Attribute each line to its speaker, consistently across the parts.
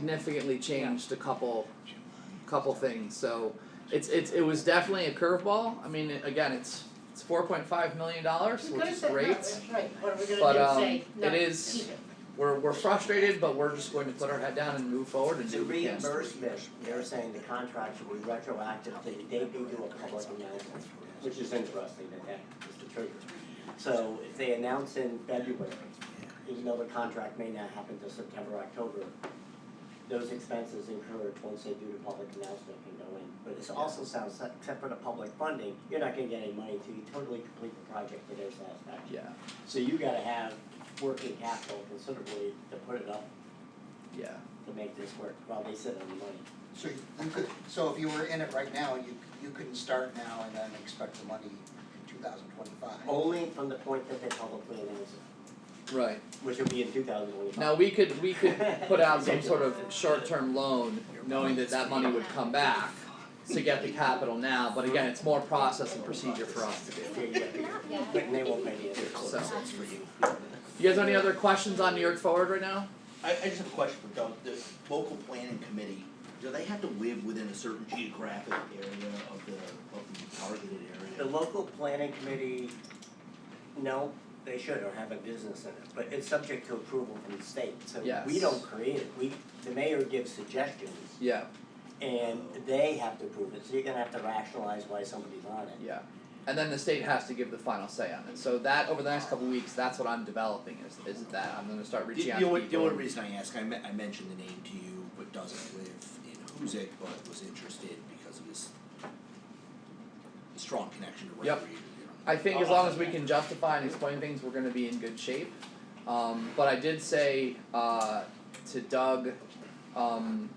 Speaker 1: significantly changed a couple, couple things. So it's it's it was definitely a curveball. I mean, again, it's it's four point five million dollars, which is
Speaker 2: No,
Speaker 1: great.
Speaker 2: that's right, what are we gonna
Speaker 1: But,
Speaker 2: do,
Speaker 1: um,
Speaker 2: say, no,
Speaker 1: it is-
Speaker 2: keep it.
Speaker 1: We're we're frustrated, but we're just going to put our head down and move forward and
Speaker 3: It's a
Speaker 1: do what we can.
Speaker 3: reimbursement, they're saying the contract should be retroactive, they, they do do a public announcement, which is interesting that that is the truth. So if they announce in February, even though the contract may not happen till September, October, those expenses incurred once they do the public announcement can go in. But this also sounds, se- except for the public funding, you're not gonna get any money till you totally complete the project to their satisfaction.
Speaker 1: Yeah,
Speaker 3: So you gotta have working capital considerably to put it up
Speaker 1: yeah.
Speaker 3: to make this work while they sit on the money.
Speaker 4: So you could, so if you were in it right now, you, you couldn't start now and then expect the money in two thousand twenty-five.
Speaker 1: Oh.
Speaker 3: Only from the point that they publicly announce it,
Speaker 1: Right.
Speaker 3: which will be in two thousand twenty-five.
Speaker 1: Now we could we could put out some sort of short-term loan, knowing that that money would come back to get the capital now. But again, it's more process and procedure for us to do.
Speaker 3: But they won't pay the interest.
Speaker 1: So, you guys have any other questions on New York Forward right now?
Speaker 5: I, I just have a question for Doug, the local planning committee, do they have to live within a certain geographic area of the, of the targeted
Speaker 3: The
Speaker 5: area?
Speaker 3: local planning committee, no, they should or have a business in it, but it's subject to approval from the state, so we
Speaker 1: Yes.
Speaker 3: don't create it, we, the mayor gives suggestions
Speaker 1: Yeah,
Speaker 3: and they have to approve it, so you're gonna have to rationalize why somebody's on it.
Speaker 1: yeah. And then the state has to give the final say on it. So that over the next couple weeks, that's what I'm developing is is that I'm gonna start
Speaker 5: The,
Speaker 1: reaching out
Speaker 5: the
Speaker 1: to
Speaker 5: only, the
Speaker 1: people.
Speaker 5: only reason I ask, I me- I mentioned the name to you, but doesn't live in Huzik, but was interested because of his strong connection to
Speaker 1: Yep.
Speaker 5: recreation.
Speaker 1: I think as long as we can justify and explain things, we're gonna be in good shape. Um, but I did say, uh, to Doug, um,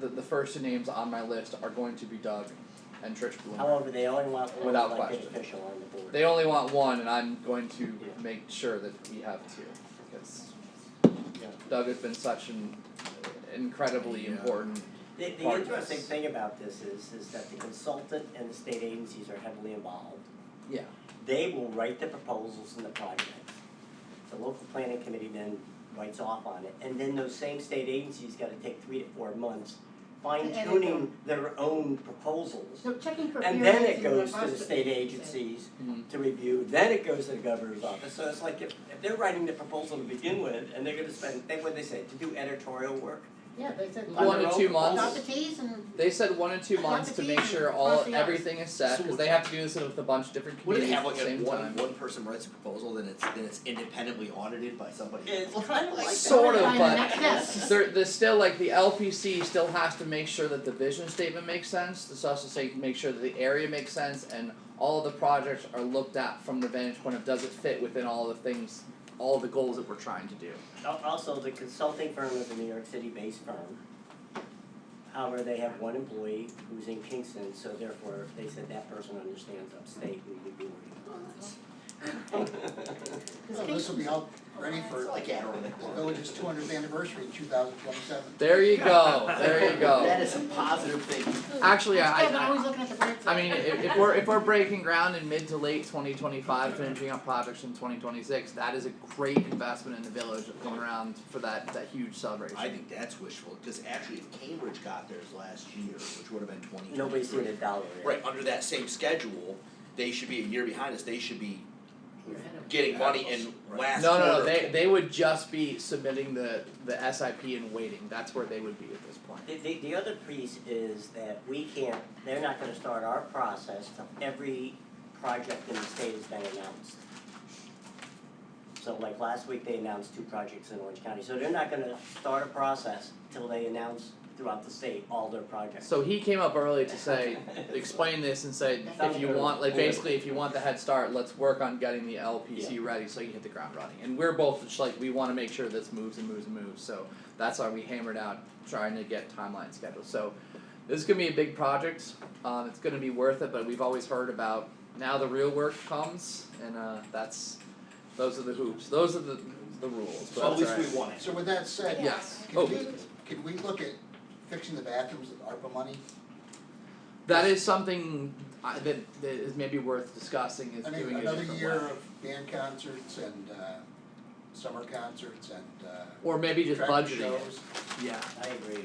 Speaker 1: the, the first two names on my list are going to be Doug and Trish Bloomer.
Speaker 3: However, they only want one
Speaker 1: Without
Speaker 3: elected
Speaker 1: question.
Speaker 3: official on the board.
Speaker 1: They only want one, and I'm going to
Speaker 3: Yeah.
Speaker 1: make sure that we have two, because
Speaker 3: Yeah.
Speaker 1: Doug has been such an incredibly
Speaker 5: Yeah.
Speaker 1: important,
Speaker 3: The the
Speaker 1: part of
Speaker 3: interesting
Speaker 1: this.
Speaker 3: thing about this is, is that the consultant and the state agencies are heavily involved.
Speaker 1: yeah,
Speaker 3: They will write the proposals and the projects. The local planning committee then writes off on it, and then those same state agencies gotta take three to four months fine
Speaker 2: edit them.
Speaker 3: tuning their own proposals.
Speaker 2: So checking for
Speaker 3: And then
Speaker 2: variance
Speaker 3: it
Speaker 2: in the
Speaker 3: goes to the
Speaker 2: hospital.
Speaker 3: state agencies
Speaker 1: Mhm.
Speaker 3: to review, then it goes to the governor's office, so it's like if, if they're writing the proposal to begin with, and they're gonna spend, they, what they say, to do editorial work,
Speaker 2: Yeah, they said.
Speaker 3: On
Speaker 1: one
Speaker 3: their
Speaker 1: to
Speaker 3: own
Speaker 1: two
Speaker 2: Dot the
Speaker 1: months.
Speaker 2: Ts and.
Speaker 1: They said one to two
Speaker 2: Dot
Speaker 1: months
Speaker 2: the
Speaker 1: to
Speaker 2: T
Speaker 1: make
Speaker 2: and
Speaker 1: sure
Speaker 2: cross
Speaker 1: all,
Speaker 2: the Is.
Speaker 1: everything is set,
Speaker 5: So
Speaker 1: cause they have to do this with a bunch of different
Speaker 5: What do they
Speaker 1: communities
Speaker 5: have,
Speaker 1: at
Speaker 5: like,
Speaker 1: the same time.
Speaker 5: a one, one person writes a proposal, then it's, then it's independently audited by somebody else?
Speaker 3: it's kind of like that.
Speaker 1: Sort of,
Speaker 2: Find the
Speaker 1: but-
Speaker 2: next steps.
Speaker 1: there, there's still like the LPC still has to make sure that the vision statement makes sense. This also say make sure that the area makes sense and all the projects are looked at from the vantage point of does it fit within all the things, all the goals that we're trying to do.
Speaker 3: Al- Also, the consulting firm is a New York City-based firm. However, they have one employee who's in Kingston, so therefore, they said that person understands upstate, we would be working on this.
Speaker 4: So this will be all ready for
Speaker 5: It's like Adderall.
Speaker 4: the village's two hundredth anniversary in two thousand twenty-seven.
Speaker 1: There you go. There you
Speaker 5: That
Speaker 1: go.
Speaker 5: is a positive thing.
Speaker 1: Actually, I-
Speaker 2: Still, but
Speaker 1: I-
Speaker 2: always looking at the birds.
Speaker 1: I mean, if, if we're if we're breaking ground in mid to late 2025, finishing up projects in 2026, that is a great investment in the village going around for that that huge celebration.
Speaker 5: I think that's wishful, because actually if Cambridge got theirs last year, which would have been twenty twenty three.
Speaker 3: Nobody's seen a dollar yet.
Speaker 5: Right, under that same schedule, they should be a year behind us, they should be
Speaker 2: We're ahead of-
Speaker 5: getting money in last
Speaker 1: No,
Speaker 5: quarter.
Speaker 1: no, no. They they would just be submitting the the SIP and waiting. That's where they would be at this point.
Speaker 3: The, the, the other piece is that we can't, they're not gonna start our process till every project in the state has been announced. So like last week, they announced two projects in Orange County, so they're not gonna start a process till they announce throughout the state all their projects.
Speaker 1: So he came up early to say, explain this and say, if you want, like basically, if you want the head start, let's work on getting the LPC ready so you hit the ground running. And we're both just like, we wanna make sure this moves and moves and moves, so that's why we hammered out trying to get timeline scheduled, so. This is gonna be a big project, um, it's gonna be worth it, but we've always heard about now the real work comes and uh, that's, those are the hoops, those are the, the rules,
Speaker 5: So
Speaker 1: but
Speaker 5: at
Speaker 1: that's
Speaker 5: least
Speaker 1: alright.
Speaker 5: we won it.
Speaker 4: So with that said,
Speaker 1: Yes, oh.
Speaker 4: could we, could we look at fixing the bathrooms with ARPA money?
Speaker 1: That is something I, that, that is maybe worth discussing is
Speaker 4: I mean,
Speaker 1: doing it a
Speaker 4: another
Speaker 1: different
Speaker 4: year
Speaker 1: way.
Speaker 4: of band concerts and uh
Speaker 1: summer concerts and uh
Speaker 4: or maybe just
Speaker 1: tractor
Speaker 4: budgeting it.
Speaker 1: shows.
Speaker 4: Yeah.
Speaker 3: I agree.